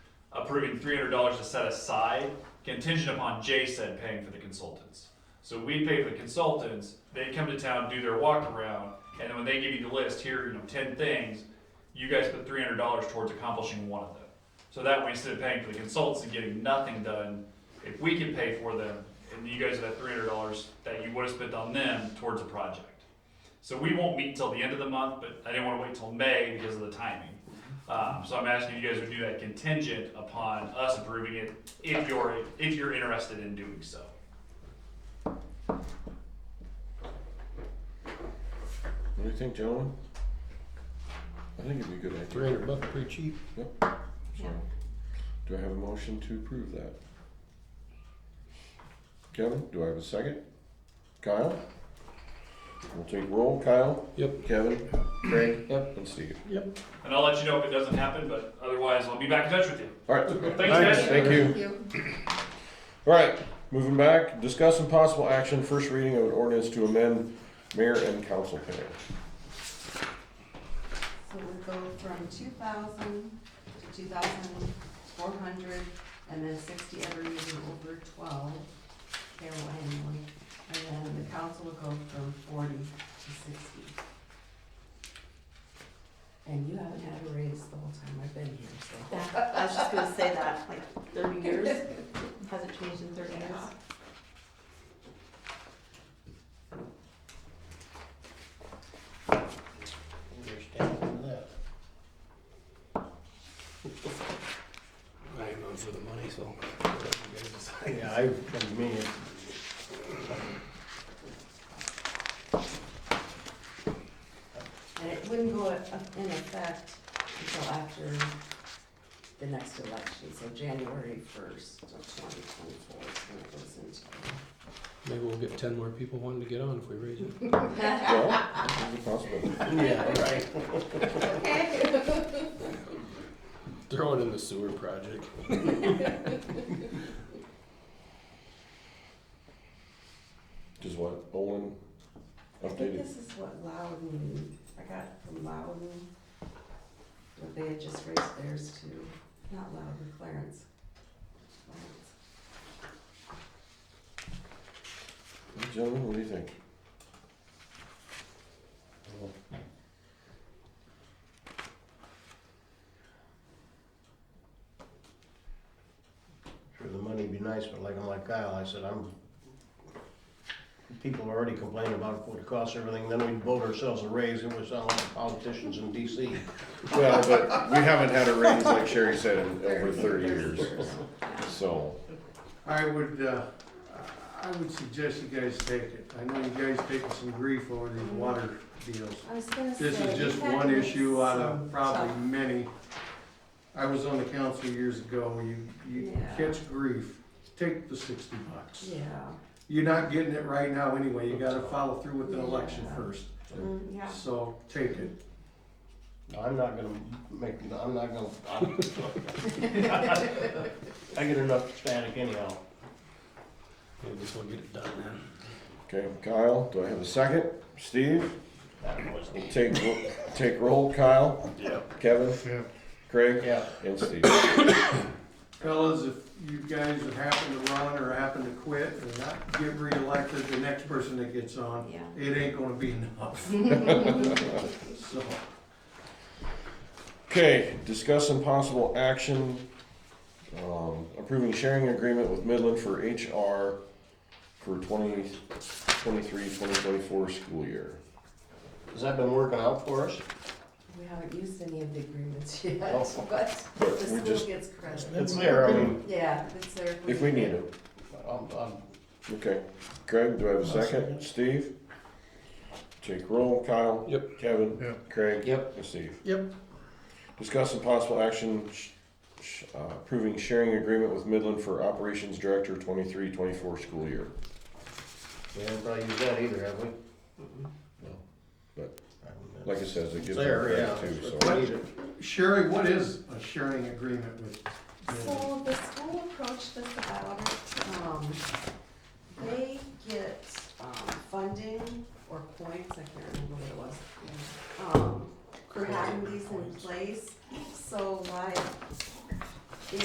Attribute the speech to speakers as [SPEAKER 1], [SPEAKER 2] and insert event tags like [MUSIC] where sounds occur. [SPEAKER 1] approving three hundred dollars to set aside contingent upon J-Said paying for the consultants. So we pay for the consultants, they come to town, do their walk around, and then when they give you the list, here, you know, ten things, you guys put three hundred dollars towards accomplishing one of them. So that way, instead of paying for the consultants and getting nothing done, if we can pay for them, and you guys have that three hundred dollars that you would have spent on them towards a project. So we won't meet until the end of the month, but I didn't wanna wait till May because of the timing. Um, so I'm asking if you guys would do that contingent upon us approving it if you're, if you're interested in doing so.
[SPEAKER 2] What do you think, gentlemen? I think it'd be a good idea.
[SPEAKER 3] Three hundred bucks, pretty cheap.
[SPEAKER 2] So, do I have a motion to approve that? Kevin, do I have a second? Kyle? We'll take roll, Kyle,
[SPEAKER 3] Yep.
[SPEAKER 2] Kevin, Craig,
[SPEAKER 3] Yep.
[SPEAKER 2] and Steve.
[SPEAKER 3] Yep.
[SPEAKER 1] And I'll let you know if it doesn't happen, but otherwise I'll be back in touch with you.
[SPEAKER 2] Alright,
[SPEAKER 1] Thanks, guys.
[SPEAKER 2] thank you. Alright, moving back, discuss and possible action, first reading of an ordinance to amend mayor and council pay.
[SPEAKER 4] So we go from two thousand to two thousand four hundred, and then sixty every year over twelve, payroll annually. And then the council will go from forty to sixty. And you haven't had a raise the whole time I've been here, so.
[SPEAKER 5] Yeah, I was just gonna say that, like thirty years, hasn't changed in thirty years.
[SPEAKER 4] [LAUGHS]
[SPEAKER 3] Understand that.
[SPEAKER 6] I am on for the money, so. you guys decide.
[SPEAKER 3] Yeah, I, that's me.
[SPEAKER 4] And it wouldn't go up- in effect until after the next election, so January first of twenty twenty-four is when it goes into.
[SPEAKER 6] Maybe we'll get ten more people wanting to get on if we raise it.
[SPEAKER 2] Well, that's a possibility.
[SPEAKER 6] Yeah, right.
[SPEAKER 4] [LAUGHS] Okay.
[SPEAKER 6] Throw it in the sewer project.
[SPEAKER 2] Just what, Olin
[SPEAKER 4] I think
[SPEAKER 2] updated?
[SPEAKER 4] this is what Loudon, I got from Loudon, that they had just raised theirs to, not Loudon, Clarence. Clarence.
[SPEAKER 2] Gentlemen, what do you think?
[SPEAKER 3] Sure, the money'd be nice, but like I'm like Kyle, I said, I'm, people are already complaining about what it costs everything, then we vote ourselves a raise, and we sound like politicians in DC.
[SPEAKER 2] Well, but we haven't had a raise, like Sherry said, in over thirty
[SPEAKER 4] Thirty
[SPEAKER 2] years, so.
[SPEAKER 7] I would, uh, I would suggest you guys take it. I know you guys taking some grief over these water deals.
[SPEAKER 4] I was gonna say.
[SPEAKER 7] This is just
[SPEAKER 4] you had
[SPEAKER 7] one
[SPEAKER 4] to make
[SPEAKER 7] issue out
[SPEAKER 4] some
[SPEAKER 7] of probably
[SPEAKER 4] tough-
[SPEAKER 7] many. I was on the council years ago, you, you
[SPEAKER 4] Yeah.
[SPEAKER 7] catch grief, take the sixty bucks.
[SPEAKER 4] Yeah.
[SPEAKER 7] You're not getting it right now anyway, you gotta follow through with the election
[SPEAKER 4] Yeah.
[SPEAKER 7] first,
[SPEAKER 4] Mm, Yeah.
[SPEAKER 7] so take it.
[SPEAKER 3] No, I'm not gonna make, I'm not gonna, I'm. I get enough static anyhow.
[SPEAKER 6] Yeah, just wanna get it done, man.
[SPEAKER 2] Okay, Kyle, do I have a second? Steve,
[SPEAKER 3] That was,
[SPEAKER 2] take, ro- take roll, Kyle,
[SPEAKER 3] yeah,
[SPEAKER 2] Kevin, Craig,
[SPEAKER 3] yeah.
[SPEAKER 2] and Steve.
[SPEAKER 7] Fellas, if you guys have happened to run or happen to quit and not get reelected, the next person that gets on,
[SPEAKER 4] Yeah.
[SPEAKER 7] it ain't gonna be enough. So,
[SPEAKER 2] Okay, discuss some possible action, um, approving sharing agreement with Midland for HR for 2023-2024 school year.
[SPEAKER 3] Has that been working out for us?
[SPEAKER 4] We haven't used any of the agreements [LAUGHS] yet,
[SPEAKER 3] Oh.
[SPEAKER 4] but
[SPEAKER 2] But
[SPEAKER 4] the
[SPEAKER 2] we
[SPEAKER 4] school
[SPEAKER 2] just-
[SPEAKER 4] gets credit.
[SPEAKER 3] It's there, I mean,
[SPEAKER 4] Yeah, it's there.
[SPEAKER 2] If we need it.
[SPEAKER 3] I'm, I'm
[SPEAKER 2] Okay, Craig, do I have a
[SPEAKER 6] I'll
[SPEAKER 2] second?
[SPEAKER 6] second.
[SPEAKER 2] Steve? Take roll, Kyle.
[SPEAKER 6] Yep.
[SPEAKER 2] Kevin. Craig.
[SPEAKER 3] Yep.
[SPEAKER 2] And Steve.
[SPEAKER 6] Yep.
[SPEAKER 2] Discuss some possible action sh- sh- uh, approving sharing agreement with Midland for Operations Director 23-24 school year.
[SPEAKER 3] We haven't probably used that either, have we?
[SPEAKER 2] No. But- Like I said, it gives them
[SPEAKER 3] There, yeah.
[SPEAKER 2] credit too, so.
[SPEAKER 3] But we need it.
[SPEAKER 7] Sherry, what is a sharing agreement with
[SPEAKER 4] um, um,